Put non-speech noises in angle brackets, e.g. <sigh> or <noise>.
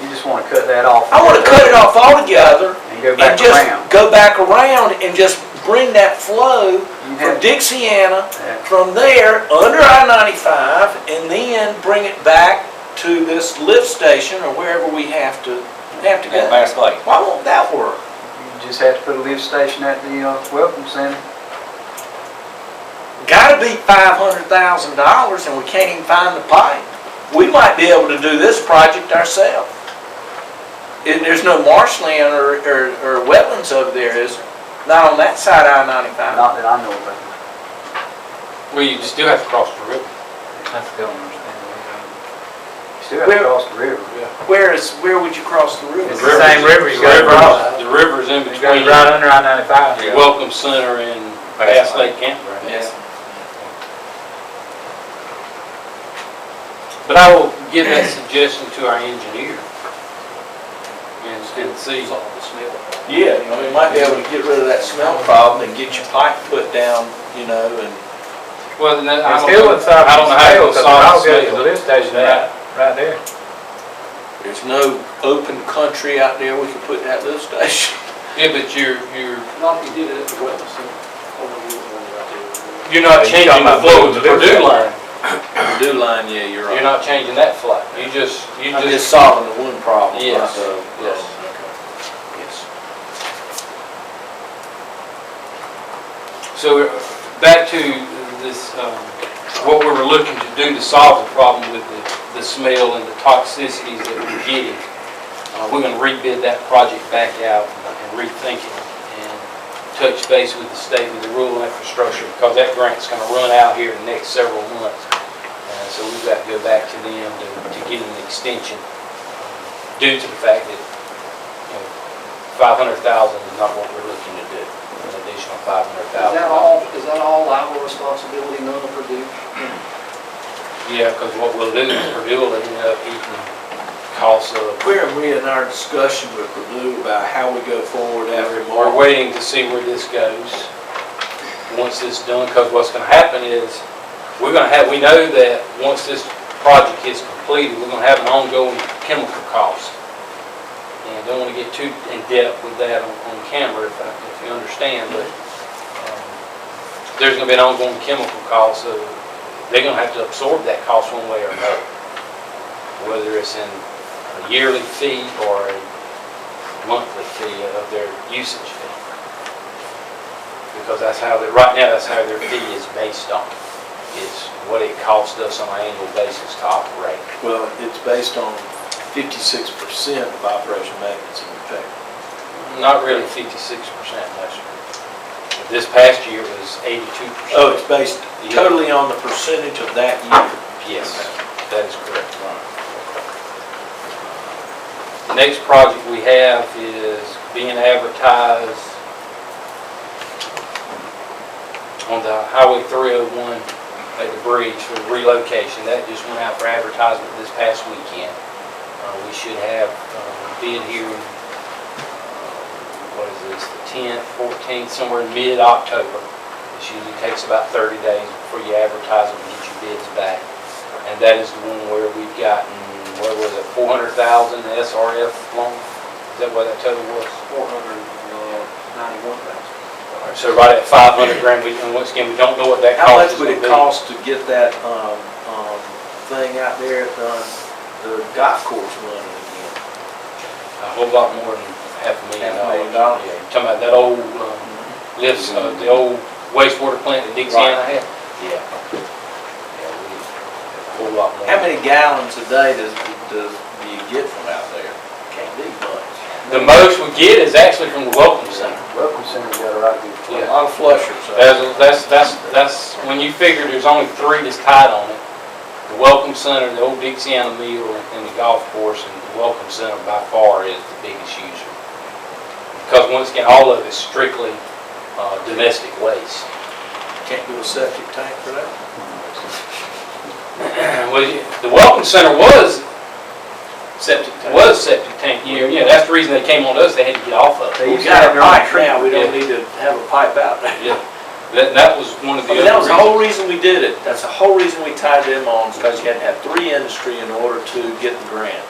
You just wanna cut that off. I wanna cut it off altogether And go and back just around. go back around and just bring that flow You from have- Dixiana, Yeah. from there, under I-95, and then bring it back to this lift station or wherever we have to, have to At go. Mass Lake. Why won't that work? You just have to put a lift station at the, uh, welcome center. Uh-huh. Gotta be five hundred thousand dollars and we can't even find the pipe. We might be able to do this project ourselves. And there's no marshland or, or, or wetlands over there, is there? Not on that side of I ninety-five. Not that I know about. Well, you still have to cross the river. I still don't understand. You still have to Where- cross the river. Where is, where would you cross the river? It's the same river you gotta river- cross. The river's in It goes between right under I ninety-five. the Welcome Center and Bass Lake Campground. Yeah. But I will give that suggestion to our engineer. And and see. Yeah, you know, we might be able to get rid of that smell problem and get your pipe put down, you know, and. Well, then I It don't still know, would solve I don't know the how sale, it'll because I'll solve go to the the lift station right, right there. There's no open country out there we could put that lift station. Yeah, but you're, you're, Not if you did it at the wetland center. Oh, no, you wouldn't want that you're Yeah, not you changing talking the about flow of the moving the lift Purdue station. line. Do line, yeah, you're You're not changing that flow. You just, you I'm just just, solving the one problem. Yes, So, yes. Yes. so we're- back to this, um, what we were looking to do to solve the problem with the, the smell and the toxicities that we're getting. Uh, We're gonna rebid that project back out and rethink it and touch base with the state with the rural infrastructure because that grant's gonna run out here in the next several months. Uh, So we've got to go back to them to, to get an extension uh, due to the fact that, you know, five hundred thousand is not what we're looking to do, an additional five hundred Is thousand. that all, is that all liable responsibility, none of Purdue? Yeah, because what we'll do is Purdue will end up eating costs of Where are we in our discussion with Purdue about how we go forward after We're March? waiting to see where this goes. Once this done, because what's gonna happen is, we're gonna have, we know that once this project is completed, we're gonna have an ongoing chemical cost. And don't wanna get too in depth with that on, on camera, if, I- if you understand, but, um, there's gonna be an ongoing chemical cost, so they're gonna have to absorb that cost one way or another. Whether it's in a yearly fee or a monthly fee of their usage fee. Because that's how, they right now, that's how their fee is based on, is what it costs us on an annual basis to operate. Well, it's based on fifty-six percent of operation maintenance and repair. Not really fifty-six percent last year. This past year was eighty-two percent. Oh, it's based Yeah. totally on the percentage of that year. Yes, that is correct. The next project we have is being advertised on the Highway 301 at the bridge for relocation. That just went out for advertisement this past weekend. Uh, We should have uh, bid here, in, uh, what is this, the 10th, 14th, somewhere in mid-October. It usually takes about 30 days before you advertise it and get your bids back. And that is the one where we've gotten, what was it, 400,000 SRF loan? Is that what that total was? Four hundred and ninety-one thousand. All right, So right at 500 grand, we, and once again, we don't know what that How cost much would is going to it be. cost to get that, um, um, thing out there at the, the golf course money again? A whole lot more than half a Half a million dollars. million dollars. Yeah, you're Talking about that old, um, Mm-hmm. lifts, uh, the old wastewater plant that Dixana had? Yeah. Yeah, we, a whole lot more. How many gallons a day does, does, do you get from out there? Can't be much. The most we get is actually from the welcome center. Welcome center got a right good flow. A Yeah. lot of flushers. out there. That's, that's, that's, that's, when you figure there's only three that's tied on it, the Welcome Center, the old Dixiana Mill, and the golf course, and the Welcome Center by far is the biggest user. Because once again, all of it's strictly, uh, domestic waste. <clears throat> Can't do a septic tank for that? Well, the Welcome Center was septic, was septic tank year, yeah, that's the reason they came on us, they had to get off of it. They We used to got have a their own pipe treatment. now, we don't Yeah. need to have a pipe out <laughs> there. Yeah, that, that was one I of the mean, that was other the whole reasons. reason we did it, that's the whole reason we tied them on, is because you had to have three industry in order to get the grant.